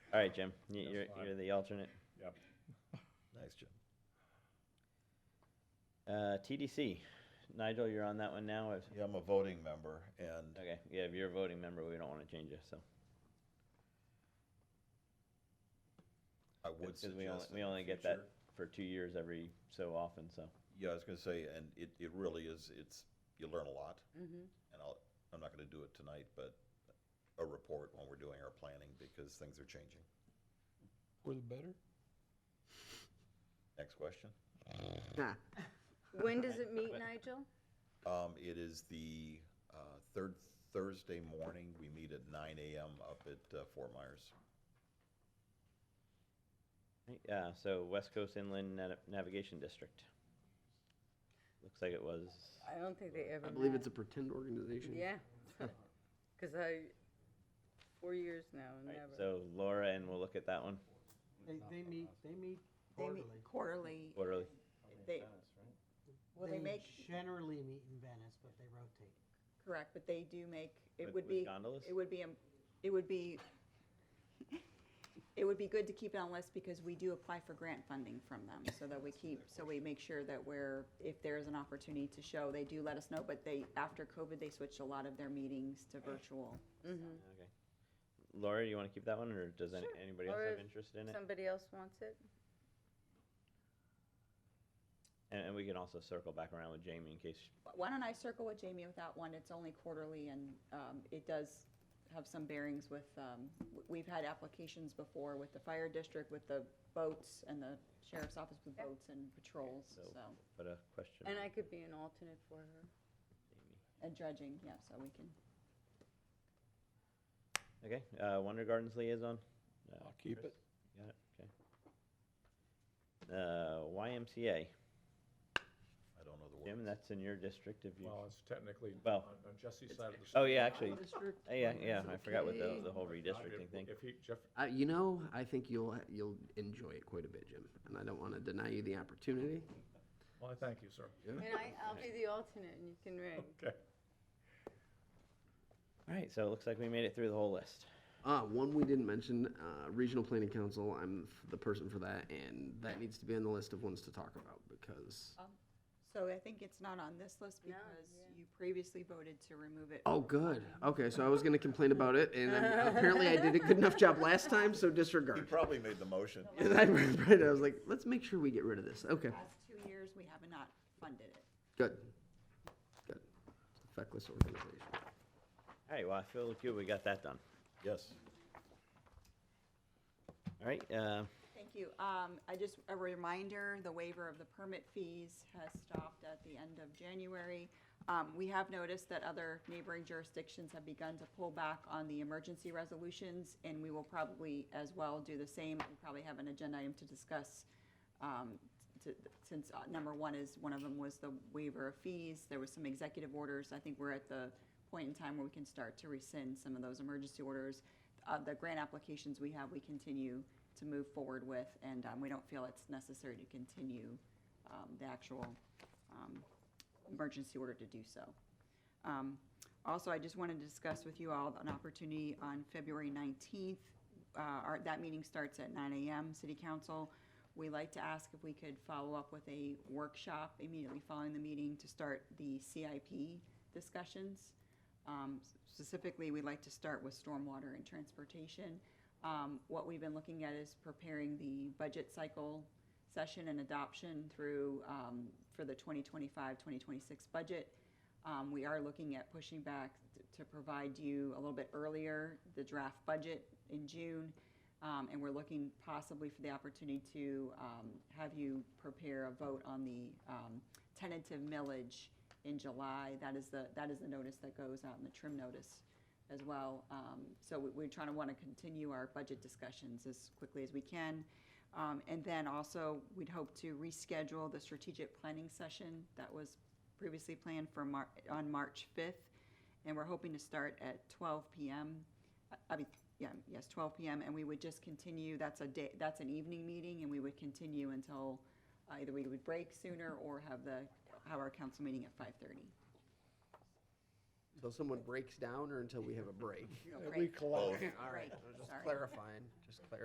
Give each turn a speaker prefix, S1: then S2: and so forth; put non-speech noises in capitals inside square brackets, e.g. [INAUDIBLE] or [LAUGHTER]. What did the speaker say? S1: All right, Jim, you-
S2: That's
S1: you're,
S2: fine.
S1: you're the alternate.
S2: Yep.
S3: Nice, Jim.
S1: Uh, TDC, Nigel, you're on that one now. I've-
S3: Yeah, I'm a voting member, and
S1: Okay, yeah, if you're a voting member, we don't want to change you, so.
S3: I would
S1: Because we only,
S3: suggest.
S1: we
S3: in the
S1: only get that
S3: future-
S1: for two years every so often, so.
S3: Yeah, I was gonna say, and it, it really is, it's, you learn a lot,
S4: Mm-hmm.
S3: and I'll, I'm not gonna do it tonight, but a report when we're doing our planning, because things are changing.
S5: For the better?
S3: Next question.
S4: When does it meet, Nigel?
S3: Um, it is the, uh, third Thursday morning. We meet at nine AM up at uh, Fort Myers.
S1: Yeah, so West Coast Inland Nav- Navigation District. Looks like it was,
S4: I don't think they ever
S6: I believe it's a
S4: met.
S6: pretend organization. [LAUGHS]
S4: Yeah. Because I, four years now, and
S1: right,
S4: never.
S1: so Laura, and we'll look at that one
S5: They, they meet, they meet
S7: They meet
S5: quarterly.
S7: quarterly.
S1: quarterly.
S7: They, well, they make,
S5: Generally meet in Venice, but they rotate.
S7: correct, but they do make,
S1: With-
S7: it would
S1: with
S7: be,
S1: gondolas?
S7: it would be, um, it would be, it would be good to keep it on list because we do apply for grant funding from them, so that we keep, so we make sure that we're, if there is an opportunity to show, they do let us know, but they, after COVID, they switched a lot of their meetings to virtual.
S4: Mm-hmm.
S1: Okay. Laura, you want to keep that one, or does any- anybody else
S4: Or
S1: have
S4: if
S1: interest in it?
S4: Somebody else wants it?
S1: And, and we can also circle back around with Jamie in case,
S7: Why don't I circle with Jamie with that one? It's only quarterly and um, it does have some bearings with, um, w- we've had applications before with the fire district, with the boats and the sheriff's office with boats and patrols,
S1: So-
S7: so,
S1: put a question.
S4: And
S1: mark.
S4: I could be an alternate for her.
S7: and dredging, yeah, so we can.
S1: Okay, uh, Wonder Gardens liaison? Uh,
S5: I'll keep
S1: Chris,
S5: it.
S1: Got it, okay. Uh, YMCA,
S3: I don't know the
S1: Jim,
S3: words.
S1: that's in your district if you,
S2: Well, it's technically on
S1: Well,
S2: on Jesse's side of the.
S1: oh,
S2: state.
S1: yeah, actually,
S6: District,
S1: uh, yeah, yeah, I forgot what the,
S6: okay.
S1: the whole
S2: I'd be-
S1: redistricting thing.
S2: If he, Jeff,
S6: Uh, you know, I think you'll, you'll enjoy it quite a bit, Jim, and I don't want to deny you the opportunity.
S2: well, I thank you, sir.
S4: And I, I'll be the alternate and you can ring.
S2: Okay.
S1: All right, so it looks like we made it through the whole list.
S6: Uh, one we didn't mention, uh, Regional Planning Council, I'm f- the person for that, and that needs to be on the list of ones to talk about, because,
S7: So I think it's not on this list
S4: No,
S7: because
S4: yeah.
S7: you previously voted to remove it.
S6: oh, good, okay, so I was gonna complain about it, and I'm- apparently I did a good enough job last time, so
S3: He
S6: disregard.
S3: probably made
S1: [LAUGHS]
S3: the motion.
S6: And I remembered, I was like, let's make sure we get rid of this, okay,
S7: Last two years, we have not funded it.
S6: good, good, feckless organization.
S1: All right, well, I feel good we got that done.
S3: Yes.
S1: All right, uh,
S7: Thank you. Um, I just, a reminder, the waiver of the permit fees has stopped at the end of January. Um, we have noticed that other neighboring jurisdictions have begun to pull back on the emergency resolutions, and we will probably as well do the same. We probably have an agenda item to discuss, um, to, since, uh, number one is, one of them was the waiver of fees. There was some executive orders. I think we're at the point in time where we can start to rescind some of those emergency orders. Uh, the grant applications we have, we continue to move forward with, and, um, we don't feel it's necessary to continue, um, the actual, um, emergency order to do so. Um, Also, I just wanted to discuss with you all an opportunity on February 19th. Uh, our- That meeting starts at 9 AM, City Council. We like to ask if we could follow up with a workshop immediately following the meeting to start the CIP discussions. Um, Specifically, we'd like to start with stormwater and transportation. Um, What we've been looking at is preparing the budget cycle session and adoption through, um, for the 2025, 2026 budget. Um, We are looking at pushing back t- to provide you a little bit earlier, the draft budget in June. Um, And we're looking possibly for the opportunity to um, have you prepare a vote on the um, tentative millage in July. That is the, that is the notice that goes out in the trim notice as well. Um, So we- we're trying to want to continue our budget discussions as quickly as we can. Um, And then also, we'd hope to reschedule the strategic planning session that was previously planned for Mar, on March 5th. And we're hoping to start at 12 PM. I- I mean, yeah, yes, 12 PM. And we would just continue, that's a day, that's an evening meeting, and we would continue until uh, either we would break sooner or have the, have our council meeting at 5:30.
S6: Until someone breaks down or until we have a break?
S7: No, break.
S3: Both.
S6: All right,
S7: Break,
S6: I'm just
S7: sorry.
S6: clarifying, just clarifying.